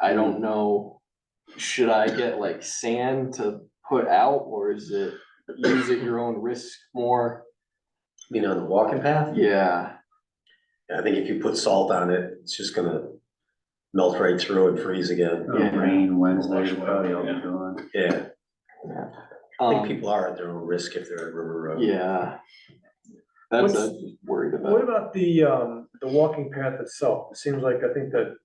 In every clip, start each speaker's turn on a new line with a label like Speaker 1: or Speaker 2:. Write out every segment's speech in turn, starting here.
Speaker 1: I don't know, should I get like sand to put out or is it use at your own risk more?
Speaker 2: You know, the walking path,
Speaker 1: Yeah,
Speaker 2: I think if you put salt on it, it's just gonna melt right through and freeze again.
Speaker 3: It'll
Speaker 1: Yeah.
Speaker 3: Rain Wednesday,
Speaker 4: Wash
Speaker 3: it'll
Speaker 4: away,
Speaker 3: probably all be
Speaker 4: yeah.
Speaker 3: gone.
Speaker 2: Yeah, I think
Speaker 1: um,
Speaker 2: people are at their own risk if they're at River Road.
Speaker 1: yeah. That's what I
Speaker 5: What's-
Speaker 1: was worried about.
Speaker 5: What about the, um, the walking path itself? It seems like, I think that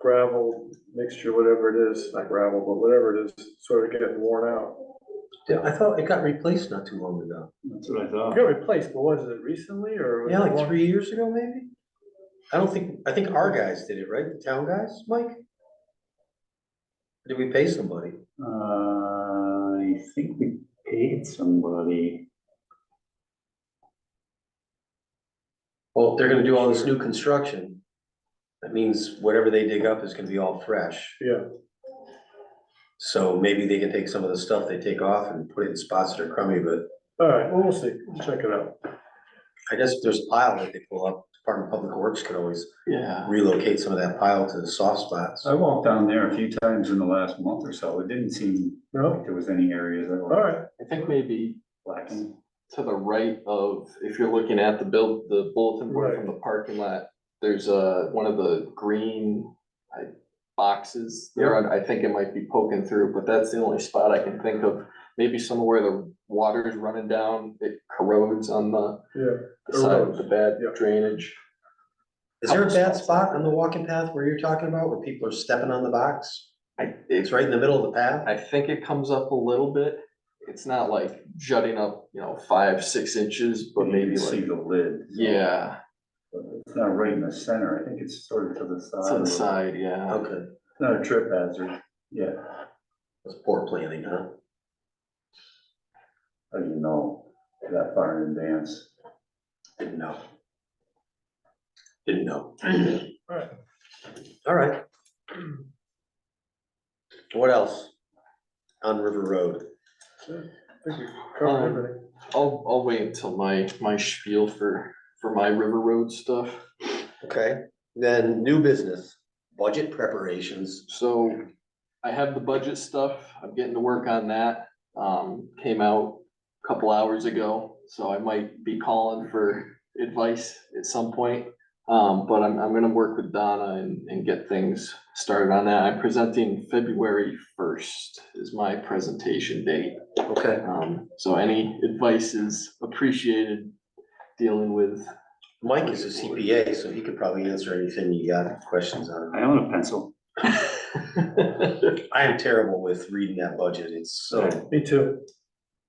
Speaker 5: gravel mixture, whatever it is, not gravel, but whatever it is, sort of getting worn out.
Speaker 2: Yeah, I thought it got replaced not too long ago.
Speaker 3: That's what I
Speaker 5: It
Speaker 3: thought.
Speaker 5: got replaced, but was it recently or? was
Speaker 2: Yeah,
Speaker 5: it
Speaker 2: like
Speaker 5: long-
Speaker 2: three years ago, maybe? I don't think, I think our guys did it, right? The town guys, Mike? Did we pay somebody?
Speaker 3: Uh, I think we paid somebody.
Speaker 2: Well, they're gonna do all this new construction. That means whatever they dig up is gonna be all fresh.
Speaker 5: Yeah,
Speaker 2: So maybe they can take some of the stuff they take off and put it in spots that are crummy, but
Speaker 5: all right, well, we'll see, We'll check it out.
Speaker 2: I guess if there's a pile that they pull up, Department of Public Works could always
Speaker 1: Yeah,
Speaker 2: relocate some of that pile to the soft spots.
Speaker 3: I walked down there a few times in the last month or so. It didn't seem like
Speaker 5: No,
Speaker 3: there was any areas that
Speaker 5: all
Speaker 3: were
Speaker 5: right,
Speaker 1: I think maybe
Speaker 3: lacking.
Speaker 1: to the right of, if you're looking at the build, the bulletin board from the parking lot, there's a, one of the green like, boxes there, and I think it might be poking through, but that's the only spot I can think of. Maybe somewhere where the water is running down, it corrodes on the
Speaker 5: yeah.
Speaker 1: the side of the bad
Speaker 5: Erodes, yeah.
Speaker 1: drainage.
Speaker 2: Is there a bad spot on the walking path where you're talking about, where people are stepping on the box?
Speaker 1: I,
Speaker 2: It's
Speaker 1: it's,
Speaker 2: right in the middle of the path?
Speaker 1: I think it comes up a little bit. It's not like jutting up, you know, five, six inches, but
Speaker 3: You
Speaker 1: maybe
Speaker 3: could See
Speaker 1: like,
Speaker 3: the lid. so-
Speaker 1: yeah,
Speaker 3: but It's not right in the center. I think it's sort of to the side.
Speaker 1: it's on
Speaker 3: a
Speaker 1: the
Speaker 3: little.
Speaker 1: side, yeah.
Speaker 2: Okay,
Speaker 3: It's Not a trip hazard. Yeah,
Speaker 2: that's poor planning, huh?
Speaker 3: how do you know that far in advance?
Speaker 2: Didn't know. Didn't know.
Speaker 5: Alright.
Speaker 2: All right. What else? On River Road,
Speaker 5: I think we covered
Speaker 2: Um,
Speaker 5: everything.
Speaker 1: I'll, I'll wait until my, my spiel for, for my River Road stuff.
Speaker 2: okay, then new business, budget preparations.
Speaker 1: So I have the budget stuff. I'm getting to work on that. Um, came out a couple hours ago, so I might be calling for advice at some point. Um, but I'm, I'm gonna work with Donna and, and get things started on that. I'm presenting February first is my presentation date.
Speaker 2: Okay.
Speaker 1: Um, so any advice is appreciated dealing with,
Speaker 2: Mike is a CPA, so he could probably answer anything you got questions on.
Speaker 3: I own a pencil.
Speaker 2: I am terrible with reading that budget, it's so,
Speaker 5: Me too.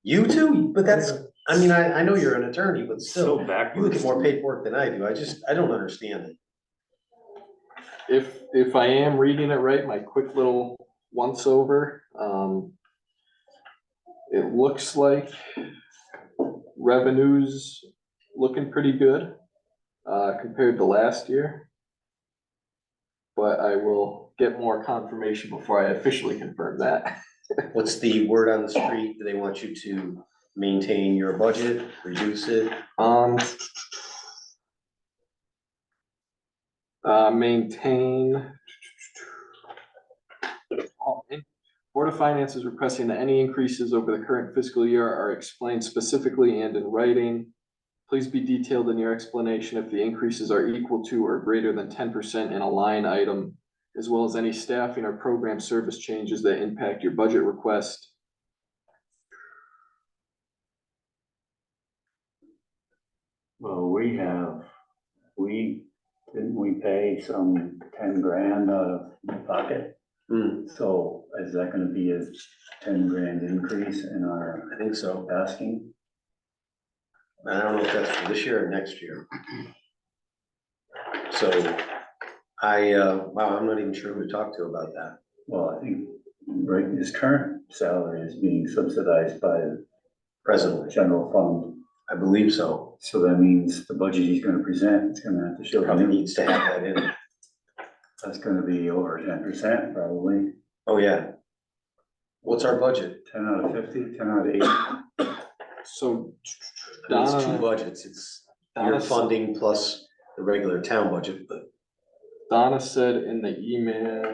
Speaker 2: you too, but that's, I mean, I, I know you're an attorney, but
Speaker 3: So
Speaker 2: still. You look
Speaker 3: backwards.
Speaker 2: at more paperwork than I do, I just, I don't understand it.
Speaker 1: if, if I am reading it right, my quick little once over, um. It looks like revenues looking pretty good, uh, compared to last year. But I will get more confirmation before I officially confirm that.
Speaker 2: What's the word on the street? Do they want you to maintain your budget, reduce it?
Speaker 1: Um. Uh, maintain. Oh, and Board of Finance is requesting that any increases over the current fiscal year are explained specifically and in writing. Please be detailed in your explanation if the increases are equal to or greater than ten percent in a line item, as well as any staffing or program service changes that impact your budget request.
Speaker 3: Well, we have, we, didn't we pay some ten grand out of pocket?
Speaker 2: Hmm,
Speaker 3: So is that gonna be a ten grand increase in our
Speaker 2: I think so.
Speaker 3: asking?
Speaker 2: I don't know if that's for this year or next year. So I, uh, wow, I'm not even sure who to talk to about that.
Speaker 3: Well, I think, right, his current salary is being subsidized by the
Speaker 2: Presently,
Speaker 3: general fund.
Speaker 2: I believe so.
Speaker 3: So that means the budget he's gonna present, it's gonna have to show,
Speaker 2: Probably needs to have that in.
Speaker 3: that's gonna be over ten percent probably,
Speaker 2: Oh, yeah. What's our budget?
Speaker 3: ten out of fifty, ten out of eighty.
Speaker 1: So
Speaker 2: It's two
Speaker 1: Donna-
Speaker 2: budgets. It's your
Speaker 1: Donna
Speaker 2: funding plus the regular town budget, but
Speaker 1: Donna said in the email,